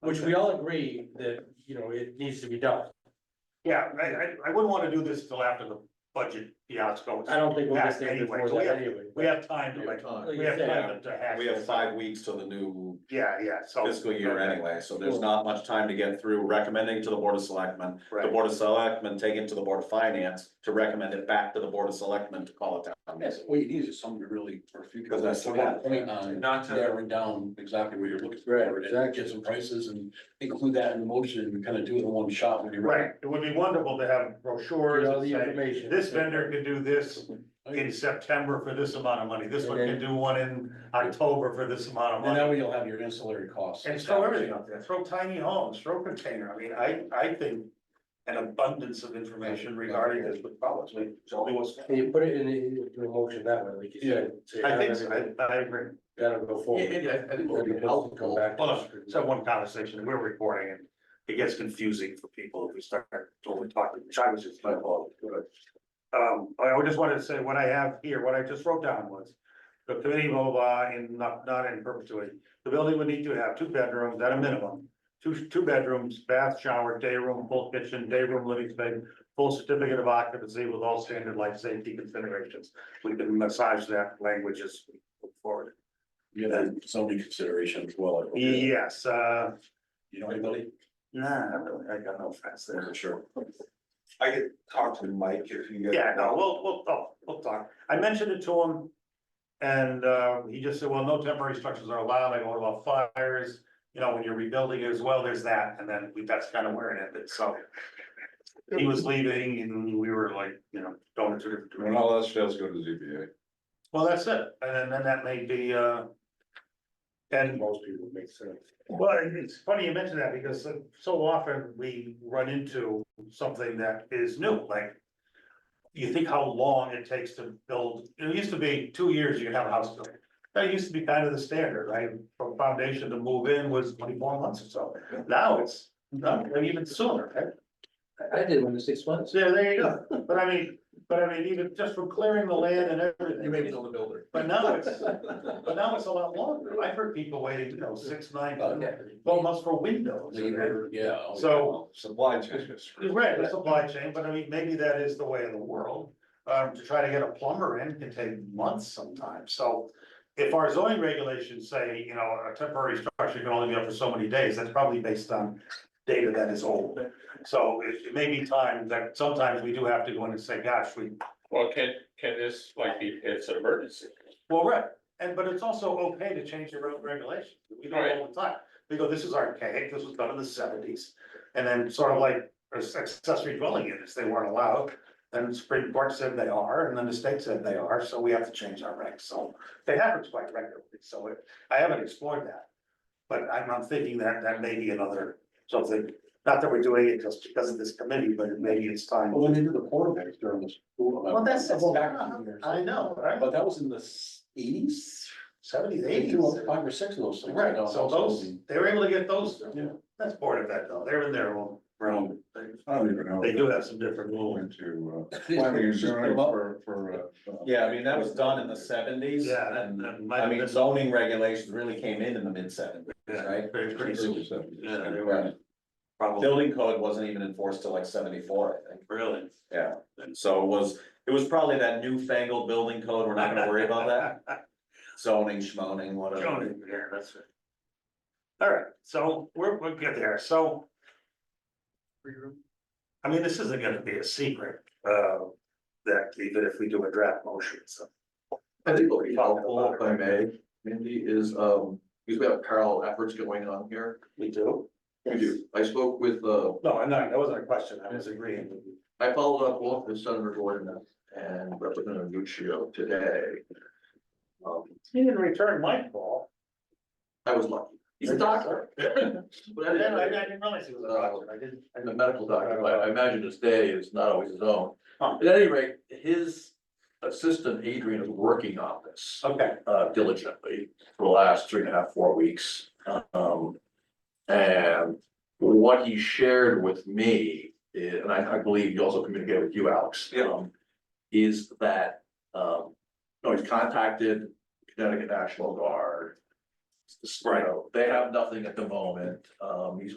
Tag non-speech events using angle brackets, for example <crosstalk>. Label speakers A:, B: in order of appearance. A: which we all agree that, you know, it needs to be done.
B: Yeah, I, I, I wouldn't wanna do this till after the budget fiasco.
A: I don't think we'll get there
B: Yeah, anyway,
A: before
B: so we
A: that
B: have-
A: anyway.
B: We have time to
C: Your
B: like,
C: time.
B: we have time to hash.
C: We have
B: this
C: five
B: out.
C: weeks till the new
B: Yeah, yeah, so.
C: fiscal year anyway, so there's not much time to get through recommending to the board of selectmen. The
B: Right,
C: board of selectmen take it to the board of finance to recommend it back to the board of selectmen to call it down.
D: Yes, what you need is something to really, for future.
C: Because that's what happened.
D: Point on
A: Not to-
D: narrowing down exactly what you're looking for.
A: Right,
D: and Get some prices and include that in the motion and kind of do it in one shot when you're ready.
B: right, it would be wonderful to have brochures
A: Get all
B: and
A: the
B: say,
A: information.
B: this vendor can do this in September for this amount of money, this one can do one in October for this amount of
D: And that
B: money.
D: way you'll have your ancillary costs.
B: And throw everything out there, throw tiny homes, throw container, I mean, I, I think an abundance of information regarding this would probably, only what's.
A: Can you put it in the, into a motion that way, like you said? so you
B: I
A: have
B: think, so,
A: everything,
B: I, I agree.
A: Gotta go forward.
B: I think
A: Then it has to come back to
B: Hold on,
A: us.
B: so one conversation, we're recording and it gets confusing for people if we start totally talking, which I was just like, oh, good. Um, I I just wanted to say what I have here, what I just wrote down was. The committee blah blah blah in not not in perpetuity, the building would need to have two bedrooms at a minimum. Two two bedrooms, bath, shower, day room, full kitchen, day room, living space, full certificate of occupancy with all standard life safety considerations. We can massage that language as we go forward.
D: You have zoning consideration as well. I hope.
B: Yes, uh,
D: You know anybody?
B: Nah, not really, I got no friends there.
D: Sure.
E: I could talk to Mike if you. guys-
B: Yeah, no, we'll, we'll, oh, we'll talk. I mentioned it to him. And, uh, he just said, well, no temporary structures are allowed. I go, what about fires? You know, when you're rebuilding as well, there's that, and then we, that's kind of where it ended, so. He was leaving and we were like, you know, going to different
E: When
B: directions.
E: all else fails, go to ZBA.
B: Well, that's it, and then, then that may be, uh. And
A: Most people make sense.
B: Well, it- it's funny you mention that because so- so often we run into something that is new, like. You think how long it takes to build, it used to be two years you could have a house built. That used to be kind of the standard, right? From foundation to move in was twenty-four months or so. Now it's, not and even sooner, right?
A: I did one in six months.
B: So there you go. But I mean, but I mean, even just from clearing the land and everything.
C: You may be the builder.
B: But now it's, but now it's a lot longer. I've heard people waiting, you know, six, nine, twelve months for windows.
D: Later, yeah. oh,
B: So-
E: Supply chain is.
B: You're Right, the supply chain, but I mean, maybe that is the way of the world. Um, to try to get a plumber in can take months sometimes, so. If our zoning regulations say, you know, a temporary structure can only be up for so many days, that's probably based on data that is old. So it, it may be time that sometimes we do have to go in and say, gosh, we,
F: Well, can, can this, like, be, it's an emergency,
B: well, right, and, but it's also okay to change your own regulations. We do it all the time. We go, this is archaic, this was done in the seventies. And then sort of like accessory dwelling units, they weren't allowed. Then the Supreme Court said they are, and then the state said they are, so we have to change our regs. So they happen quite regularly, so it- I haven't explored that. But I'm, I'm thinking that that may be another something, not that we're doing it just because of this committee, but maybe it's time.
D: Well, when they did the quarterbacks during the school.
B: Well, that's-
D: I'll go back a few years.
B: I know, right?
D: But that was in the eighties?
B: Seventies,
D: They
B: eighties.
D: do like five or six of those things.
B: Right,
D: now,
B: so
D: household.
B: those, they were able to get those,
D: Yeah.
B: that's part of that though, they're in their own realm.
E: I don't even know.
B: They do have some different rules.
E: Into, uh,
D: These
E: planning and
D: things just
E: zoning
D: come up.
E: for, for. uh,
C: Yeah, I mean, that was done in the seventies.
B: Yeah, that-
C: And,
B: that might
C: I
B: have
C: mean,
B: been-
C: zoning regulations really came in in the mid seventies, right?
B: Very pretty soon.
E: Early seventies.
B: Yeah, they
C: Right.
B: were probably
C: Building code wasn't even enforced till like seventy-four, I think.
B: brilliant.
C: Yeah, and so it was, it was probably that newfangled building code, we're not gonna worry about that, zoning, schmoning, whatever.
B: Joan, yeah, that's it. All right, so we're, we're good there, so. I mean, this isn't gonna be a secret, uh, that even if we do a draft motion, so.
G: I think what would be helpful, if I may, Mindy, is, um, because we have parallel efforts going on here.
B: We do?
G: We do. I spoke with, uh,
B: No, I'm not, that wasn't a question, I was agreeing. with you.
G: I followed up both with Senator Gordon and Representative Nuccio today. Um,
B: He didn't return my call.
G: I was lucky. He's a doctor. <laughs> But I
B: Then I I
G: didn't,
B: didn't realize he was a doctor, I didn't. I
G: I'm a
B: didn't-
G: medical doctor, but I imagine his day is not always his own.
B: Huh.
G: At any rate, his assistant Adrian is working on this.
B: Okay,
G: uh, diligently for the last three and a half, four weeks. Um, and what he shared with me, eh, and I, I believe he also communicated with you, Alex.
E: Yeah.
G: um, Is that, um, no, he's contacted Connecticut National Guard. you know, They have nothing at the moment, um, he's